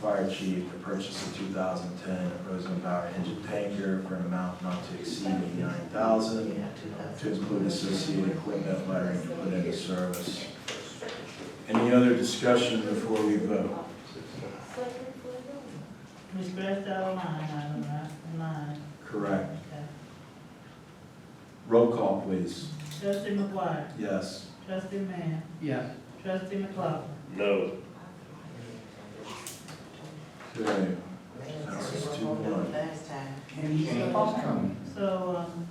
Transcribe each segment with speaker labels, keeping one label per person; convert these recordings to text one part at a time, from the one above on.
Speaker 1: fire chief to purchase a two thousand ten Rosenbauer engine tanker for an amount not to exceed eighty-nine thousand to include associated equipment lettering to put into service. Any other discussion before we vote?
Speaker 2: Ms. Greco, line item, right? Line,
Speaker 1: Correct.
Speaker 2: okay.
Speaker 1: Roll call, please.
Speaker 2: Trustee McGuire,
Speaker 1: Yes.
Speaker 2: trustee Mann,
Speaker 3: Yes.
Speaker 2: trustee McLaughlin,
Speaker 4: No.
Speaker 1: Okay. That was two one.
Speaker 5: Last time.
Speaker 3: And he said it's coming.
Speaker 2: so, um,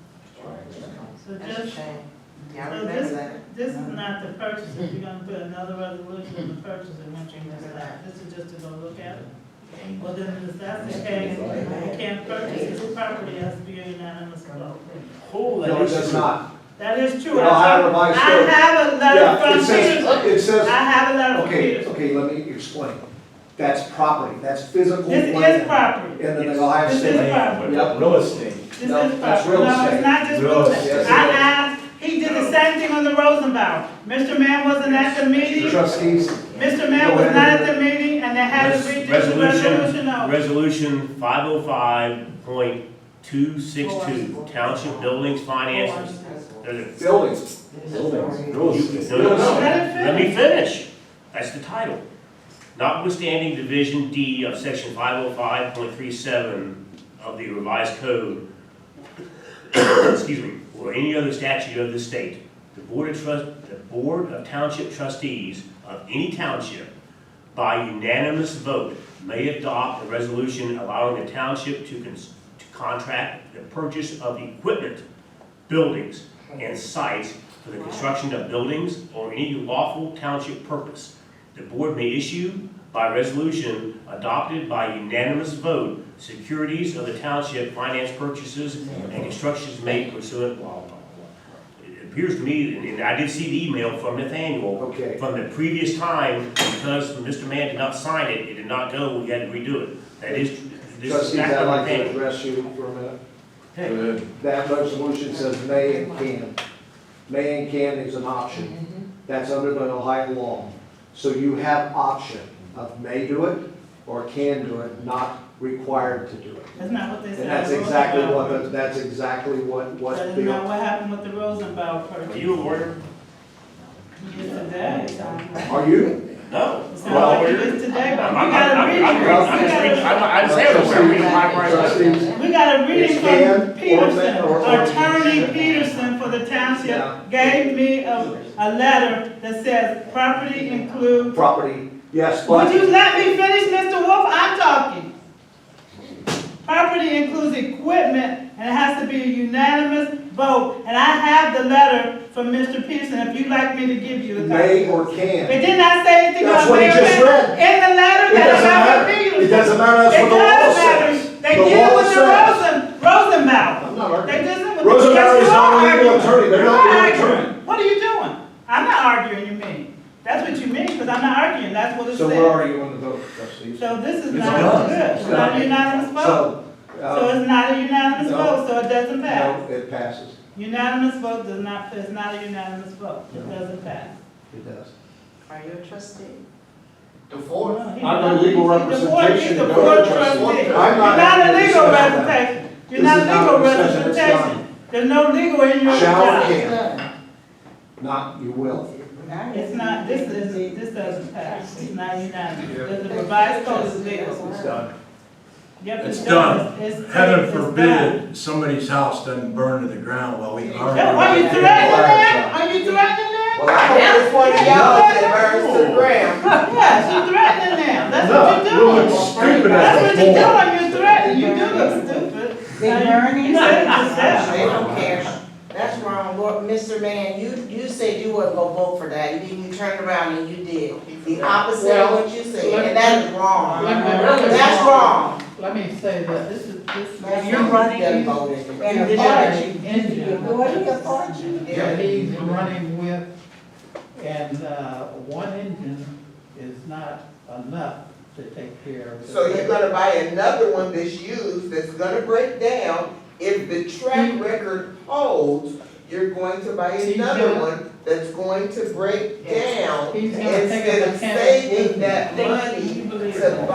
Speaker 2: so
Speaker 5: That's a
Speaker 2: just,
Speaker 5: shame. Y'all
Speaker 2: so
Speaker 5: remember that?
Speaker 2: this, this is not the purchase, if you're gonna put another resolution in the purchase and one thing that's not, this is just to go look at it. Well, then, if that's the case, we can't purchase this property as being unanimous vote.
Speaker 3: Oh,
Speaker 6: No, it does not.
Speaker 2: That is true.
Speaker 6: No, I have a revised
Speaker 2: I
Speaker 6: vote.
Speaker 2: have a
Speaker 6: Yeah,
Speaker 2: letter
Speaker 6: it
Speaker 2: from
Speaker 6: says,
Speaker 2: Peterson.
Speaker 6: it
Speaker 2: I
Speaker 6: says,
Speaker 2: have a letter from
Speaker 6: okay,
Speaker 2: Peterson.
Speaker 6: okay, let me explain. That's property, that's physical
Speaker 2: This
Speaker 6: land.
Speaker 2: is property.
Speaker 6: In the Ohio
Speaker 2: This
Speaker 6: State.
Speaker 2: is property.
Speaker 6: Yep.
Speaker 1: Real estate.
Speaker 2: This is
Speaker 6: No,
Speaker 2: property.
Speaker 6: that's real
Speaker 2: No,
Speaker 6: estate.
Speaker 2: it's not just
Speaker 1: Real
Speaker 2: real
Speaker 6: estate.
Speaker 2: estate. I asked, he did the same thing on the Rosenbauer. Mr. Mann wasn't at the meeting.
Speaker 6: Trustees,
Speaker 2: Mr. Mann was not at the meeting and they had to redo the resolution over.
Speaker 4: Resolution five oh five point two six two, Township Buildings Finances. There's a-
Speaker 6: buildings,
Speaker 1: Buildings, real estate.
Speaker 4: No, no, no.
Speaker 2: Let it
Speaker 4: Let me finish. That's the title. Notwithstanding Division D of Section five oh five point three seven of the revised code, excuse me, or any other statute of the state, the Board of Trust, the Board of Township Trustees of any township by unanimous vote may adopt a resolution allowing the township to cons- to contract the purchase of equipment, buildings, and sites for the construction of buildings or any lawful township purpose. The board may issue by resolution adopted by unanimous vote securities of the township finance purchases and constructions made pursuant blah, blah, blah. It appears to me, and- and I did see the email from Nathaniel
Speaker 6: okay.
Speaker 4: from the previous time, because Mr. Mann did not sign it, it did not go, we had to redo it. That is, this is
Speaker 6: Trustees,
Speaker 4: back
Speaker 6: I'd
Speaker 4: on
Speaker 6: like
Speaker 4: the
Speaker 6: to
Speaker 4: thing.
Speaker 6: address you for a minute.
Speaker 4: Hey.
Speaker 6: That resolution says may and can. May and can is an option. That's under the Ohio law. So you have option of may do it or can do it, not required to do it.
Speaker 2: That's not what they said.
Speaker 6: And that's exactly what, the- that's exactly what, what
Speaker 2: That is not
Speaker 6: the,
Speaker 2: what happened with the Rosenbauer
Speaker 4: Are
Speaker 2: purchase.
Speaker 4: you a lawyer?
Speaker 2: Yes, today.
Speaker 6: are you?
Speaker 4: No.
Speaker 2: It's
Speaker 4: I'm not a
Speaker 2: not like it
Speaker 4: lawyer.
Speaker 2: is today, but
Speaker 4: I'm,
Speaker 2: we
Speaker 4: I'm,
Speaker 2: got a
Speaker 4: I'm, I'm, I'm,
Speaker 2: reading. We
Speaker 4: just
Speaker 2: got
Speaker 4: reading-
Speaker 2: a-
Speaker 4: I'm, I'm saying a lawyer, reading my rights.
Speaker 6: Trustees,
Speaker 2: We got a reading
Speaker 6: It's Ann
Speaker 2: from
Speaker 6: or
Speaker 2: Peterson,
Speaker 6: Ma- or- or-
Speaker 2: attorney Peterson for the
Speaker 6: Yeah.
Speaker 2: township gave me a, a letter that says property include.
Speaker 6: property, yes,
Speaker 2: Would
Speaker 6: but,
Speaker 2: you let me finish, Mr. Wolf? I'm talking. Property includes equipment and it has to be a unanimous vote. And I have the letter from Mr. Peterson, if you'd like me to give you a copy.
Speaker 6: may or
Speaker 2: It
Speaker 6: can.
Speaker 2: did not say anything
Speaker 6: That's
Speaker 2: about
Speaker 6: what he
Speaker 2: mayor
Speaker 6: just
Speaker 2: and-
Speaker 6: read.
Speaker 2: In the letter
Speaker 6: It
Speaker 2: that
Speaker 6: doesn't
Speaker 2: I
Speaker 6: matter,
Speaker 2: have
Speaker 6: it doesn't matter, that's
Speaker 2: it
Speaker 6: what the
Speaker 2: does
Speaker 6: law
Speaker 2: matter.
Speaker 6: says.
Speaker 2: They
Speaker 6: The
Speaker 2: deal
Speaker 6: law
Speaker 2: with the
Speaker 6: says.
Speaker 2: Rosen, Rosenbaum.
Speaker 6: I'm not arguing.
Speaker 2: They deal with.
Speaker 6: Rosenbaum
Speaker 2: Yes,
Speaker 6: is
Speaker 2: you
Speaker 6: not
Speaker 2: are
Speaker 6: a legal
Speaker 2: arguing.
Speaker 6: attorney. They're
Speaker 2: You're
Speaker 6: not legal
Speaker 2: arguing.
Speaker 6: attorney.
Speaker 2: What are you doing? I'm not arguing, you mean. That's what you mean, because I'm not arguing, that's what it
Speaker 6: So where
Speaker 2: says.
Speaker 6: are you on the vote, trustees?
Speaker 2: So this is
Speaker 1: It's
Speaker 2: not
Speaker 1: done.
Speaker 2: good, it's
Speaker 6: It's
Speaker 2: not
Speaker 6: done.
Speaker 2: a unanimous vote.
Speaker 6: So,
Speaker 2: So
Speaker 6: uh,
Speaker 2: it's not a unanimous
Speaker 6: no.
Speaker 2: vote, so it doesn't pass.
Speaker 6: no, it passes,
Speaker 2: Unanimous vote does not, it's not a unanimous vote, it doesn't pass.
Speaker 6: it does.
Speaker 5: Are you a trustee?
Speaker 6: I'm a legal representation
Speaker 2: You're
Speaker 6: of
Speaker 2: the
Speaker 6: the
Speaker 2: board
Speaker 6: trustee.
Speaker 2: trustee. You're
Speaker 6: I'm
Speaker 2: not
Speaker 6: not
Speaker 2: a
Speaker 6: having a
Speaker 2: legal
Speaker 6: discussion about that.
Speaker 2: representation. You're
Speaker 6: This
Speaker 2: not
Speaker 6: is not
Speaker 2: legal
Speaker 6: a discussion, it's
Speaker 2: representation. There's no legal in your
Speaker 6: Shall
Speaker 2: job.
Speaker 6: we? Not, you will.
Speaker 2: It's not, this is, this doesn't pass. It's not unanimous. The revised code is legal.
Speaker 6: It's done.
Speaker 2: Yep,
Speaker 1: It's
Speaker 2: it
Speaker 1: done.
Speaker 2: does. It's-
Speaker 1: Heaven
Speaker 2: it's done.
Speaker 1: forbid somebody's house doesn't burn to the ground while we
Speaker 2: Yeah, Are you
Speaker 1: argue.
Speaker 2: threatening that? Are you threatening that?
Speaker 5: Well, I hope it's one of y'all that burns to the ground.
Speaker 2: Yes, you're threatening them. That's what you're doing.
Speaker 1: Stupid
Speaker 2: That's
Speaker 1: as
Speaker 2: what you're
Speaker 1: a whore.
Speaker 2: doing. You're threatening. You do look stupid. Now, You you said it yourself.
Speaker 5: They don't care. That's wrong. Lord, Mr. Man, you, you said you wasn't gonna vote for that. You, you turned around and you did. The opposite of what you said, and that is wrong. That's wrong.
Speaker 7: Let me say that this is, this is.
Speaker 5: That's wrong. You done voted.
Speaker 7: In the party, in the
Speaker 5: What are you party?
Speaker 7: that he's running with, and, uh, one engine is not enough to take care of. the-
Speaker 8: So you're gonna buy another one that's used, that's gonna break down, if the track record holds, you're going to buy
Speaker 7: He's
Speaker 8: another
Speaker 7: gonna-
Speaker 8: one that's going to break down.
Speaker 7: He's gonna take a
Speaker 8: Instead
Speaker 7: mechanic
Speaker 8: of
Speaker 7: with
Speaker 8: saving
Speaker 7: him.
Speaker 8: that
Speaker 2: They-
Speaker 8: money
Speaker 2: you believe
Speaker 8: to
Speaker 2: that.